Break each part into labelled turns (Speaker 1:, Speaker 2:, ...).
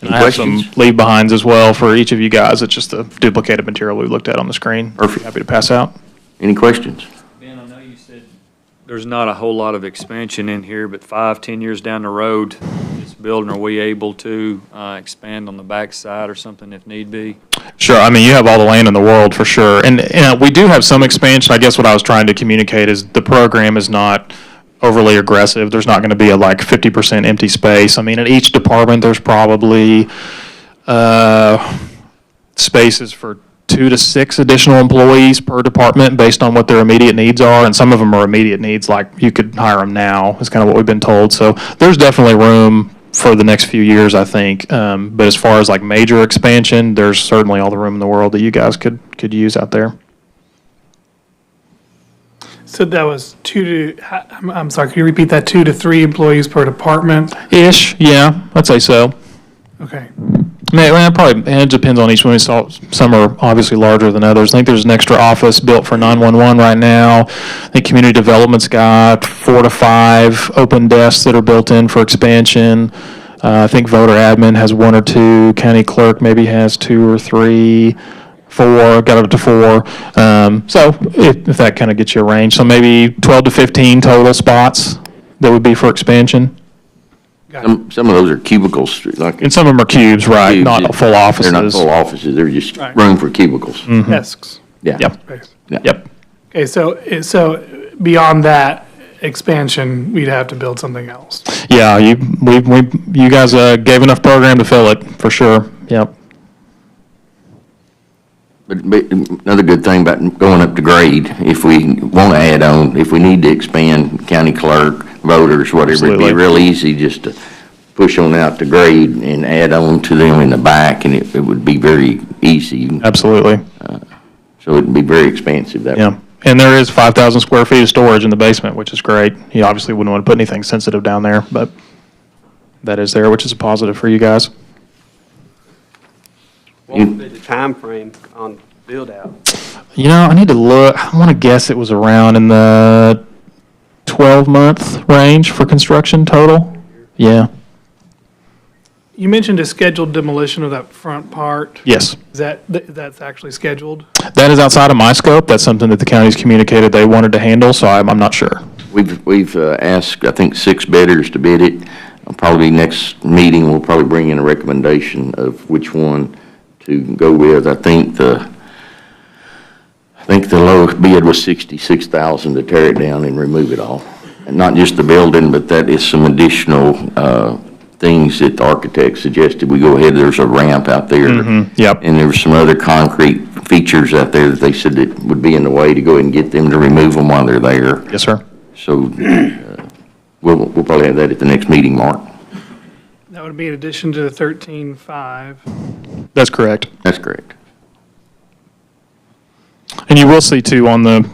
Speaker 1: And
Speaker 2: Any
Speaker 1: I have some
Speaker 2: questions?
Speaker 1: leave behinds as well for each of you guys. It's just the duplicated material we looked at on the screen.
Speaker 2: Perfect.
Speaker 1: Happy to pass out.
Speaker 2: Any questions?
Speaker 3: Ben, I know you said there's not a whole lot of expansion in here, but five, ten years down the road, this building, are we able to uh, expand on the backside or something if need be?
Speaker 1: Sure, I mean, you have all the land in the world for sure. And, and we do have some expansion. I guess what I was trying to communicate is the program is not overly aggressive. There's not going to be a like 50% empty space. I mean, in each department, there's probably uh, spaces for two to six additional employees per department based on what their immediate needs are. And some of them are immediate needs, like you could hire them now, is kind of what we've been told. So there's definitely room for the next few years, I think. Um, but as far as like major expansion, there's certainly all the room in the world that you guys could, could use out there.
Speaker 4: So that was two to, I- I'm, I'm sorry, could you repeat that? Two to three employees per department?
Speaker 1: Ish, yeah, I'd say so.
Speaker 4: Okay.
Speaker 1: I mean, well, probably, and it depends on each one. We saw some are obviously larger than others. I think there's an extra office built for 911 right now. I think community development's got four to five open desks that are built in for expansion. Uh, I think voter admin has one or two. County clerk maybe has two or three, four, got up to four. Um, so if, if that kind of gets you a range, so maybe 12 to 15 total spots that would be for expansion.
Speaker 4: Got it.
Speaker 2: Some, some of those are cubicles, like.
Speaker 1: And some of them are cubes, right? Not full offices. Mm,
Speaker 2: They're not full offices, they're just
Speaker 4: Right.
Speaker 2: room for cubicles.
Speaker 4: Desks.
Speaker 2: Yeah.
Speaker 1: Yep.
Speaker 4: Space.
Speaker 1: Yep.
Speaker 4: Okay, so, so beyond that expansion, we'd have to build something else.
Speaker 1: Yeah, you, we, we, you guys, uh, gave enough program to fill it, for sure, yep.
Speaker 2: But, but another good thing about going up to grade, if we want to add on, if we need to expand county clerk, voters, whatever, it'd
Speaker 1: Absolutely.
Speaker 2: be real easy just to push on out to grade and add on to them in the back, and it, it would be very easy. Uh,
Speaker 1: Absolutely,
Speaker 2: So it'd be very expansive that way.
Speaker 1: yeah. And there is five thousand square feet of storage in the basement, which is great. You obviously wouldn't want to put anything sensitive down there, but that is there, which is a positive for you guys.
Speaker 5: What would be the timeframe on build-out?
Speaker 1: You know, I need to look, I want to guess it was around in the twelve-month range for construction total? Yeah,
Speaker 4: You mentioned a scheduled demolition of that front part.
Speaker 1: yes.
Speaker 4: Is that, th- that's actually scheduled?
Speaker 1: That is outside of my scope. That's something that the county's communicated they wanted to handle, so I'm, I'm not sure.
Speaker 2: We've, we've uh, asked, I think, six bidders to bid it. Uh, Probably next meeting, we'll probably bring in a recommendation of which one to go with. I think the, I think the lowest bid was sixty-six thousand to tear it down and remove it all. And not just the building, but that is some additional, uh, things that the architect suggested. We go ahead, there's a ramp out there.
Speaker 1: Yep.
Speaker 2: And there were some other concrete features out there that they said that would be in the way to go ahead and get them to remove them while they're there.
Speaker 1: Yes, sir.
Speaker 2: So uh, we'll, we'll probably have that at the next meeting, Mark.
Speaker 4: That would be in addition to the thirteen-five.
Speaker 1: That's correct.
Speaker 2: That's correct.
Speaker 1: And you will see too on the,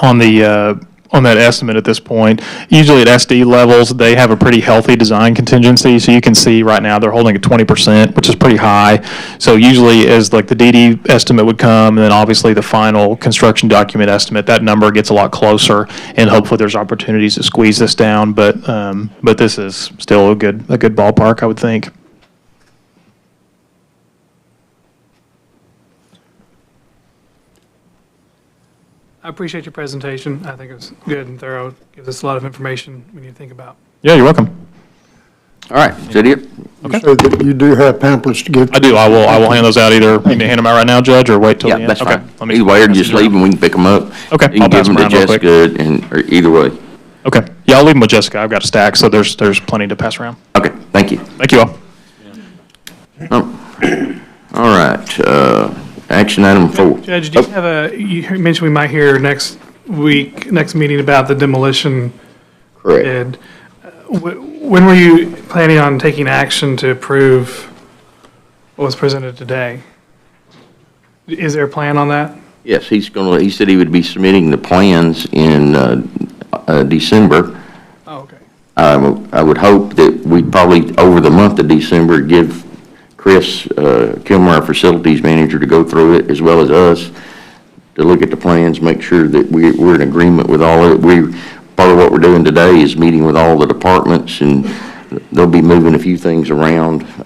Speaker 1: on the, uh, on that estimate at this point, usually at SD levels, they have a pretty healthy design contingency. So you can see right now, they're holding at twenty percent, which is pretty high. So usually as like the DD estimate would come, and then obviously the final construction document estimate, that number gets a lot closer. And hopefully there's opportunities to squeeze this down, but, um, but this is still a good, a good ballpark, I would think.
Speaker 4: I appreciate your presentation. I think it was good and thorough. Gives us a lot of information we need to think about.
Speaker 1: Yeah, you're welcome.
Speaker 2: All right, is that it?
Speaker 1: Okay.
Speaker 6: So that you do have pamphlets to give.
Speaker 1: I do. I will, I will hand those out either. You can hand them out right now, Judge, or wait till the
Speaker 2: Yeah,
Speaker 1: end.
Speaker 2: that's
Speaker 1: Okay,
Speaker 2: fine.
Speaker 1: let me-
Speaker 2: Either way, or just leave them, we can pick them up.
Speaker 1: Okay,
Speaker 2: You
Speaker 1: I'll
Speaker 2: can
Speaker 1: pass
Speaker 2: give them
Speaker 1: 'em
Speaker 2: to
Speaker 1: around real quick.
Speaker 2: Jessica, and, or either way.
Speaker 1: Okay. Yeah, I'll leave them with Jessica. I've got stacks, so there's, there's plenty to pass around.
Speaker 2: Okay, thank you.
Speaker 1: Thank you all.
Speaker 2: All right, uh, action item four.
Speaker 4: Judge, do you have a, you mentioned we might hear next week, next meeting about the demolition
Speaker 2: Oh, Correct.
Speaker 4: bid. Uh, wh- When were you planning on taking action to approve what was presented today? Is there a plan on that?
Speaker 2: Yes, he's gonna, he said he would be submitting the plans in, uh, uh, December.
Speaker 4: Oh, okay.
Speaker 2: I w- I would hope that we probably, over the month of December, give Chris uh, Kilmer, our facilities manager, to go through it, as well as us, to look at the plans, make sure that we- we're in agreement with all of it. We, part of what we're doing today is meeting with all the departments, and they'll be moving a few things around